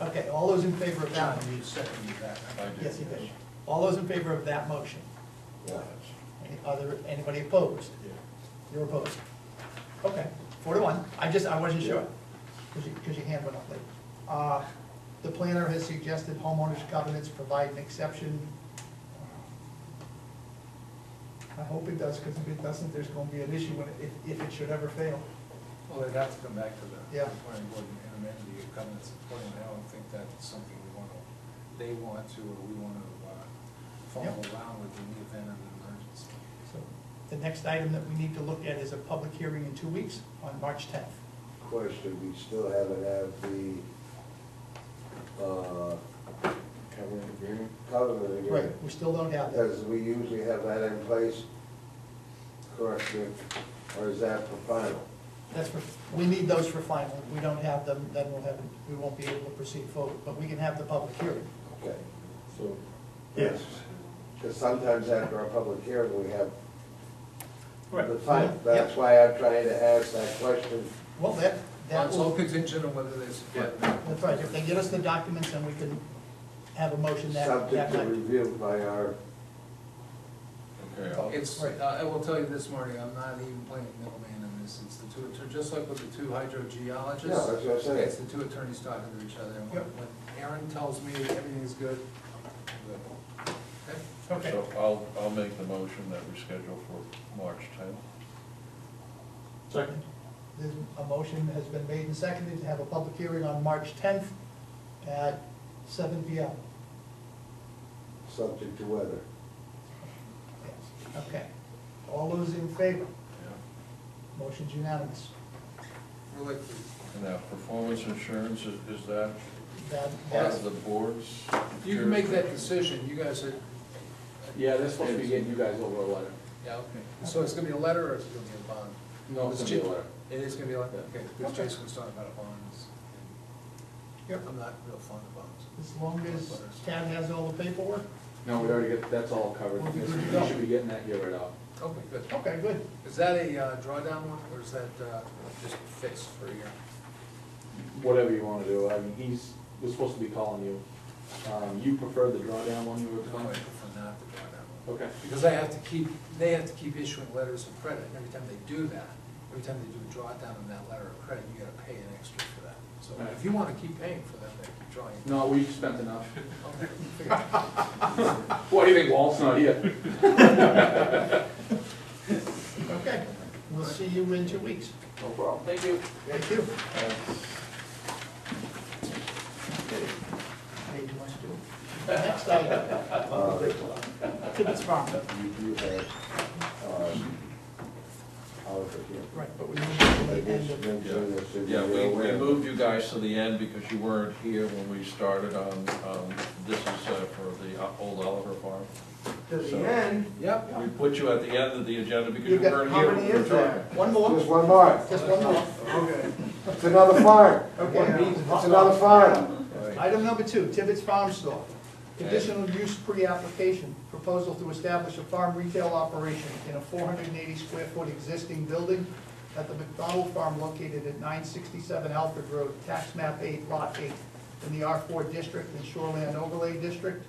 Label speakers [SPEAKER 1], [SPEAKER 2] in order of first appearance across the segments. [SPEAKER 1] Okay, all those in favor of that?
[SPEAKER 2] John, you seconded that.
[SPEAKER 3] I did.
[SPEAKER 1] Yes, you did. All those in favor of that motion?
[SPEAKER 3] Yeah.
[SPEAKER 1] Any other, anybody opposed?
[SPEAKER 2] Yeah.
[SPEAKER 1] You're opposed? Okay, four to one. I just, I wasn't sure, because you, because your hand went up late. Uh, The planner has suggested homeowners covenants provide an exception. I hope it does, because if it doesn't, there's gonna be an issue when, it- if, if it should ever fail.
[SPEAKER 2] Well, they'd have to come back to the
[SPEAKER 1] Yeah.
[SPEAKER 2] planning board and amend the covenants accordingly. I don't think that's something we want to, they want to, or we want to uh, follow
[SPEAKER 1] Yep.
[SPEAKER 2] around with in the event of an emergency.
[SPEAKER 1] So the next item that we need to look at is a public hearing in two weeks on March tenth.
[SPEAKER 3] Question, we still haven't had the, uh,
[SPEAKER 4] Covenant agreement?
[SPEAKER 3] covenant
[SPEAKER 1] Right,
[SPEAKER 3] agreement.
[SPEAKER 1] we still don't have that.
[SPEAKER 3] Because we usually have that in place, correct, me, or is that for final?
[SPEAKER 1] That's for, we need those for final. If we don't have them, then we'll have, we won't be able to proceed forward, but we can have the public hearing.
[SPEAKER 3] Okay.
[SPEAKER 4] So,
[SPEAKER 3] Yes. Because sometimes after a public hearing, we have the final. That's
[SPEAKER 1] Yeah.
[SPEAKER 3] why I'm trying to ask that question.
[SPEAKER 1] Well, that, that
[SPEAKER 2] That's all
[SPEAKER 1] will,
[SPEAKER 2] contingent on whether they support it.
[SPEAKER 1] that's right. If they get us the documents, then we can have a motion that,
[SPEAKER 3] Subject
[SPEAKER 1] that
[SPEAKER 3] to
[SPEAKER 1] night.
[SPEAKER 3] review by our,
[SPEAKER 4] okay, I'll,
[SPEAKER 2] It's, uh,
[SPEAKER 1] Right.
[SPEAKER 2] I I will tell you this, Marty, I'm not even playing middleman in this, it's the two, attor- just like with the two hydrogeologists.
[SPEAKER 3] Yeah, that's what I'm saying.
[SPEAKER 2] It's the two attorneys talking to each other, and when
[SPEAKER 1] Yep.
[SPEAKER 2] when Aaron tells me everything's good, I'm good. Okay?
[SPEAKER 1] Okay,
[SPEAKER 4] so I'll, I'll make the motion that we schedule for March tenth.
[SPEAKER 5] Second.
[SPEAKER 1] There's- a motion has been made and seconded to have a public hearing on March tenth at seven P M.
[SPEAKER 3] subject to weather.
[SPEAKER 1] Okay. All those in favor? Motion's unanimous.
[SPEAKER 2] We're like,
[SPEAKER 4] And now, performance insurance, is, is that
[SPEAKER 1] That,
[SPEAKER 4] part
[SPEAKER 1] that's,
[SPEAKER 4] of the board's?
[SPEAKER 2] you can make that decision, you guys are,
[SPEAKER 5] Yeah, they're supposed to be getting you guys over a letter.
[SPEAKER 2] yeah, okay. So it's gonna be a letter or it's gonna be a bond?
[SPEAKER 5] No, it's gonna be a
[SPEAKER 2] It's-
[SPEAKER 5] letter.
[SPEAKER 2] It is gonna be a letter,
[SPEAKER 5] Yeah.
[SPEAKER 2] okay, because
[SPEAKER 1] Okay.
[SPEAKER 2] Jason was talking about bonds. and
[SPEAKER 1] Yep.
[SPEAKER 2] I'm not real fond of bonds.
[SPEAKER 1] as long as Tad has all the paperwork?
[SPEAKER 5] No, we already get, that's all covered.
[SPEAKER 1] Well, we
[SPEAKER 5] This-
[SPEAKER 1] can-
[SPEAKER 5] You should be getting that here right off.
[SPEAKER 2] Okay, good.
[SPEAKER 1] Okay, good.
[SPEAKER 2] Is that a uh, drawdown one, or is that uh, just fixed for a year?
[SPEAKER 5] Whatever you wanna do, I mean, he's, was supposed to be calling you. Um, you prefer the drawdown one you were
[SPEAKER 2] I
[SPEAKER 5] calling?
[SPEAKER 2] prefer not the drawdown one.
[SPEAKER 5] Okay.
[SPEAKER 2] Because I have to keep, they have to keep issuing letters of credit, and every time they do that, every time they do a drawdown on that letter of credit, you gotta pay an extra for that. So if you wanna keep paying for that, then keep drawing. it.
[SPEAKER 5] No, we've spent enough.
[SPEAKER 2] Okay, figure it out.
[SPEAKER 5] What do you think, Walt's not here?
[SPEAKER 1] Okay, we'll see you in two weeks.
[SPEAKER 5] No problem. Thank you.
[SPEAKER 1] Thank you.
[SPEAKER 4] Uh,
[SPEAKER 1] Hey, do you want to do it? Next item.
[SPEAKER 3] Uh,
[SPEAKER 1] Tibbetts Farm.
[SPEAKER 3] You do have, um, however, yeah.
[SPEAKER 1] Right, but we moved it to
[SPEAKER 3] I
[SPEAKER 1] the
[SPEAKER 3] guess
[SPEAKER 1] end of,
[SPEAKER 3] then, soon as soon as
[SPEAKER 4] Yeah, we,
[SPEAKER 3] you're
[SPEAKER 4] we
[SPEAKER 3] aware.
[SPEAKER 4] moved you guys to the end because you weren't here when we started on, um, this is uh, for the uh, old Oliver Farm.
[SPEAKER 6] To
[SPEAKER 4] So-
[SPEAKER 6] the end,
[SPEAKER 2] Yep,
[SPEAKER 4] We put you at the end of the agenda because you
[SPEAKER 1] You've got-
[SPEAKER 4] weren't
[SPEAKER 6] how
[SPEAKER 4] here. when
[SPEAKER 6] many
[SPEAKER 4] we were
[SPEAKER 6] is there?
[SPEAKER 4] talking.
[SPEAKER 1] one more,
[SPEAKER 3] Just one more.
[SPEAKER 1] just one more.
[SPEAKER 6] Okay.
[SPEAKER 3] It's another farm.
[SPEAKER 1] Okay.
[SPEAKER 3] It's another farm.
[SPEAKER 1] Item number two, Tibbetts Farm Store. Conditional use pre-application, proposal to establish a farm retail operation in a four hundred and eighty square foot existing building at the McDonald Farm located at nine sixty-seven Alfred Road, tax map eight, lot eight, in the R four district and Shoreland overlay district.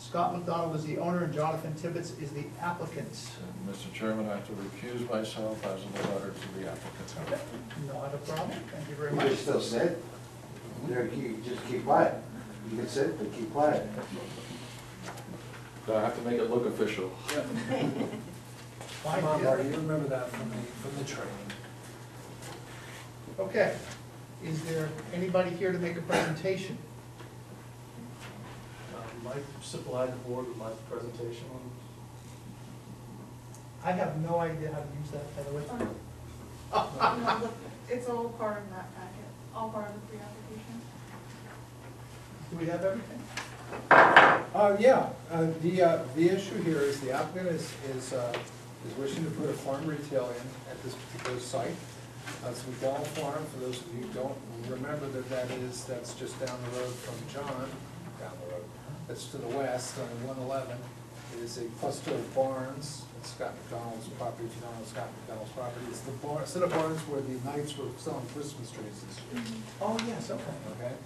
[SPEAKER 1] Scott McDonald is the owner and Jonathan Tibbetts is the applicant.
[SPEAKER 4] And Mr. Chairman, I have to recuse myself as of the letter to the applicant.
[SPEAKER 1] Not a problem, thank you very
[SPEAKER 3] You
[SPEAKER 1] much.
[SPEAKER 3] can still sit. There, you can just keep quiet. You can sit, but keep quiet.
[SPEAKER 5] I have to make it look official.
[SPEAKER 1] Fine,
[SPEAKER 2] come on,
[SPEAKER 1] yeah.
[SPEAKER 2] Marty, you remember that from the, from the training.
[SPEAKER 1] Okay, is there anybody here to make a presentation?
[SPEAKER 7] Uh,
[SPEAKER 2] Um,
[SPEAKER 7] Mike supplied the board with my presentation on
[SPEAKER 1] I have no idea how to use that, by the way.
[SPEAKER 8] It's all part of that packet, all part of the pre-application.
[SPEAKER 1] Do we have everything?
[SPEAKER 2] Uh, yeah, uh, the, uh, the issue here is the applicant is, is, uh, is wishing to put a farm retail in at this particular site. Uh, It's McDonald Farm, for those of you who don't remember that that is, that's just down the road from John, down the road, that's to the west on one eleven. It is a cluster of barns, it's Scott McDonald's property, if you don't know Scott McDonald's property, it's the bar, set of barns where the knights were selling Christmas trees this year,
[SPEAKER 1] Oh, yes, okay.
[SPEAKER 2] okay?